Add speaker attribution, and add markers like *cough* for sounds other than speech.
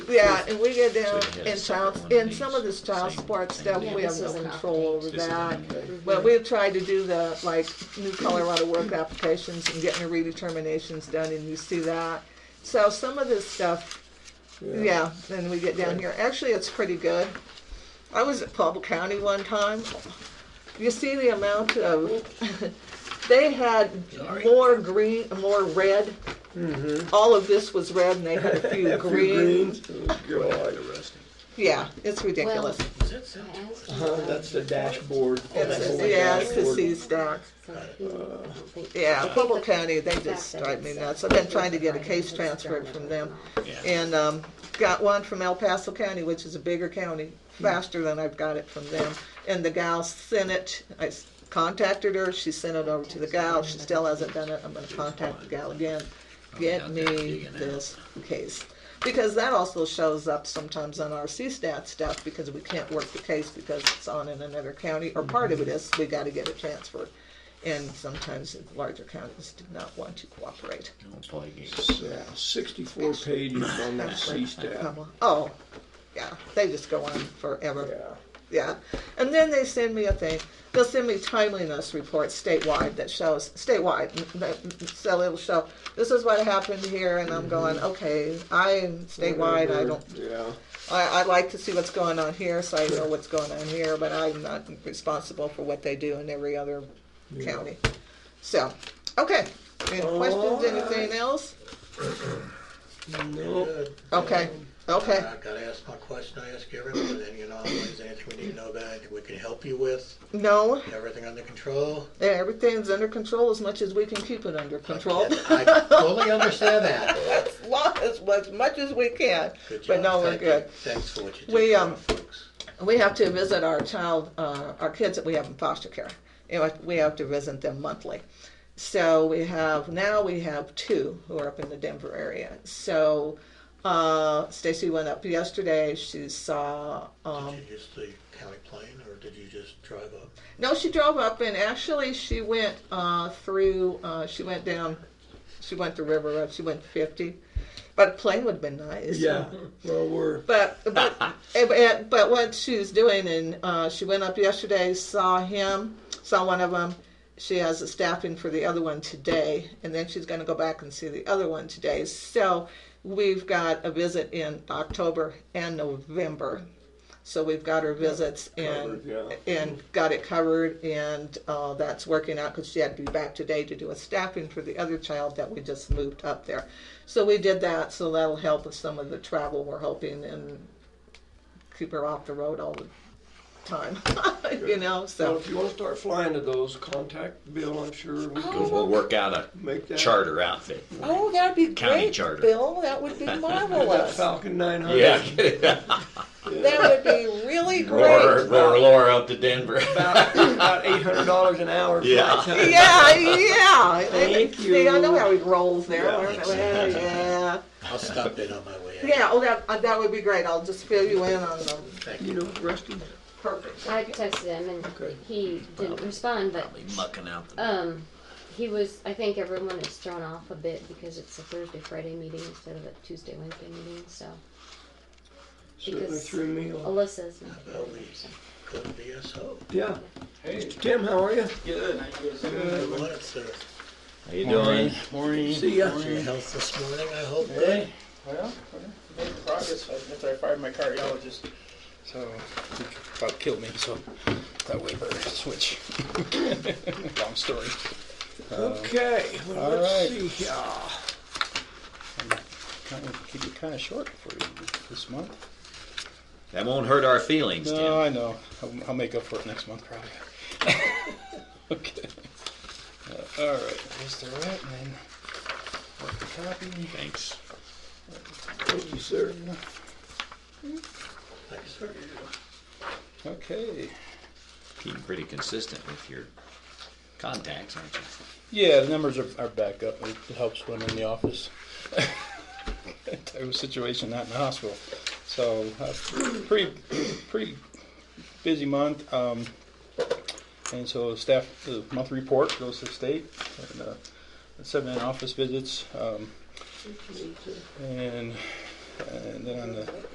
Speaker 1: Yeah, and we get
Speaker 2: So
Speaker 1: down
Speaker 2: we can get a
Speaker 1: in
Speaker 2: separate
Speaker 1: child,
Speaker 2: one of
Speaker 1: in some of
Speaker 2: these,
Speaker 1: this child
Speaker 2: same
Speaker 1: sports
Speaker 2: thing.
Speaker 1: stuff,
Speaker 3: Yeah,
Speaker 1: we have
Speaker 3: this
Speaker 1: no
Speaker 3: is an
Speaker 1: control over
Speaker 3: update.
Speaker 2: This is an
Speaker 1: that.
Speaker 2: update.
Speaker 1: But we've tried to do the, like, new Colorado work applications and getting the redeterminations done, and you see that. So some of this stuff, yeah, then we get down here. Actually, it's pretty good. I was at Paul County one time. You see the amount of, *laughs* they had more green, more red.
Speaker 2: Mm-hmm.
Speaker 1: All of this was red, and they had
Speaker 2: *laughs*
Speaker 1: a few green.
Speaker 4: Greens. Oh, God.
Speaker 2: The rest.
Speaker 1: Yeah, it's ridiculous.
Speaker 2: Is that
Speaker 3: I
Speaker 2: sound?
Speaker 3: asked him
Speaker 4: Huh,
Speaker 3: about
Speaker 4: That's the dashboard.
Speaker 1: It's,
Speaker 4: Oh, my
Speaker 1: yeah, it's the
Speaker 4: dashboard.
Speaker 1: sea stack.
Speaker 3: So he- I think-
Speaker 1: Uh, Yeah,
Speaker 3: I
Speaker 1: Pueblo
Speaker 3: think
Speaker 1: County,
Speaker 3: the
Speaker 1: they
Speaker 3: fact
Speaker 1: just
Speaker 3: that
Speaker 1: drive
Speaker 3: it's
Speaker 1: me
Speaker 3: a-
Speaker 1: nuts. I've been trying to get a case transferred from them. And, um, got one from El Paso County, which is a bigger county, faster than I've got it from them. And the gal sent it, I s- contacted her, she sent it over to the gal, she still hasn't done it, I'm gonna contact the gal again. Get me this case. Because that also shows up sometimes on our CSTAT stuff, because we can't work the case because it's on in another county, or part of it is, we gotta get it transferred. And sometimes the larger counties do not want to cooperate.
Speaker 2: Don't play games.
Speaker 4: Yeah, Sixty-four pages on that C-STAT.
Speaker 1: Oh, yeah, they just go on forever.
Speaker 4: Yeah.
Speaker 1: Yeah, and then they send me a thing. They'll send me timeliness reports statewide that shows statewide. n- that- So it'll show this is what happened here, and I'm going, okay, I statewide. I
Speaker 4: Whatever.
Speaker 1: don't.
Speaker 4: Yeah.
Speaker 1: I, I like to see what's going on here, so I know what's going on here, but I'm not responsible for what they do in every other county. So, okay. Any questions? Anything else?
Speaker 4: No.
Speaker 1: Okay. Okay.
Speaker 5: I gotta ask my question, I ask everyone, and you know, is there anything we need to know about, anything we can help you with,
Speaker 1: No,
Speaker 5: everything under control?
Speaker 1: everything's under control as much as we can keep it under control.
Speaker 5: I fully understand that.
Speaker 1: *laughs* as long as as much as we can.
Speaker 5: Good
Speaker 1: But
Speaker 5: job.
Speaker 1: no, we're
Speaker 5: Thank you.
Speaker 1: good.
Speaker 5: Thanks for what you do.
Speaker 1: We,
Speaker 5: for
Speaker 1: um,
Speaker 5: our folks.
Speaker 1: We have to visit our child, uh, our kids that we have in foster care. You know, we have to visit them monthly. So we have now we have two who are up in the Denver area. So uh, Stacy went up yesterday. She saw. Um,
Speaker 5: Did you use the county plane, or did you just drive up?
Speaker 1: No, she drove up, and actually, she went uh, through. Uh, she went down. She went the river up. She went fifty, but a plane would have been nice.
Speaker 4: Yeah, well, we're,
Speaker 1: But but eh, but- eh, but what she's doing, and uh, she went up yesterday, saw him, saw one of them. She has a staffing for the other one today, and then she's going to go back and see the other one today. So we've got a visit in October and November. So we've got her visits and
Speaker 4: Covered,
Speaker 1: and got it covered, and uh, that's working out because she had to be back today to do a staffing for the other child that we just moved up there. So we did that, so that'll help with some of the travel we're hoping and keep her off the road all the time, *laughs* you know.
Speaker 4: well,
Speaker 1: So
Speaker 4: if you wanna start flying to those, contact Bill, I'm sure we
Speaker 2: We'll,
Speaker 4: can
Speaker 2: we'll work out a
Speaker 4: make that.
Speaker 2: charter outfit.
Speaker 1: oh, that'd be
Speaker 2: County
Speaker 1: great,
Speaker 2: charter.
Speaker 1: Bill. That would
Speaker 2: *laughs*
Speaker 1: be
Speaker 4: That
Speaker 1: marvelous.
Speaker 4: Falcon nine hundred.
Speaker 1: that would be really
Speaker 2: roar,
Speaker 1: great.
Speaker 2: roar, Laura up to Denver. *laughs*
Speaker 4: About, about eight hundred dollars an hour.
Speaker 2: Yeah.
Speaker 4: flight time.
Speaker 1: Yeah, yeah.
Speaker 4: Thank
Speaker 1: See, I know
Speaker 4: you.
Speaker 1: how he rolls there.
Speaker 4: Yeah.
Speaker 1: Yeah, yeah.
Speaker 5: I'll stop in on my way out.
Speaker 1: Yeah, oh, that, uh, that would be great. I'll just fill you in on them.
Speaker 5: Thank
Speaker 4: You
Speaker 5: you.
Speaker 4: know, Rusty,
Speaker 1: Perfect.
Speaker 3: I texted him and
Speaker 4: Okay.
Speaker 3: he didn't respond, but
Speaker 2: Probably mucking out the.
Speaker 3: um, he was, I think everyone is thrown off a bit because it's a Thursday, Friday meeting instead of a Tuesday, Wednesday meeting, so
Speaker 4: certainly
Speaker 3: Because-
Speaker 4: threw me
Speaker 1: Oh.
Speaker 4: off.
Speaker 3: Alyssa's not
Speaker 5: Well,
Speaker 3: here.
Speaker 5: we could be a so.
Speaker 4: Yeah.
Speaker 6: Hey,
Speaker 4: Tim, how are you?
Speaker 6: good. How you guys doing?
Speaker 5: Well, it's uh,
Speaker 2: How you
Speaker 6: Morning. Morning.
Speaker 4: See ya.
Speaker 5: your health this morning, I hope.
Speaker 6: Hey. Well, I made progress after I fired my cardiologist. So, he about killed me, so that way better *laughs* switch. Long story.
Speaker 4: Okay, well,
Speaker 6: all
Speaker 4: let's
Speaker 6: right.
Speaker 4: see here.
Speaker 6: Kind of, keep it kind of short for you this month.
Speaker 2: That won't hurt our feelings, Tim.
Speaker 6: No, I know. I'll, I'll make up for it next month, probably. *laughs* okay. Uh, all right. There's the right, and then work the copy.
Speaker 2: Thanks.
Speaker 4: Thank you, sir.
Speaker 5: Thank you, sir.
Speaker 6: Okay.
Speaker 2: Keeping pretty consistent with your contacts, aren't you?
Speaker 6: Yeah, the numbers are, are back up. It helps when in the office. *laughs* type of situation, not in the hospital. So, uh, pretty, pretty busy month. Um, and so, staff, the monthly report goes to the state, and uh, seven in office visits, um, and And then on the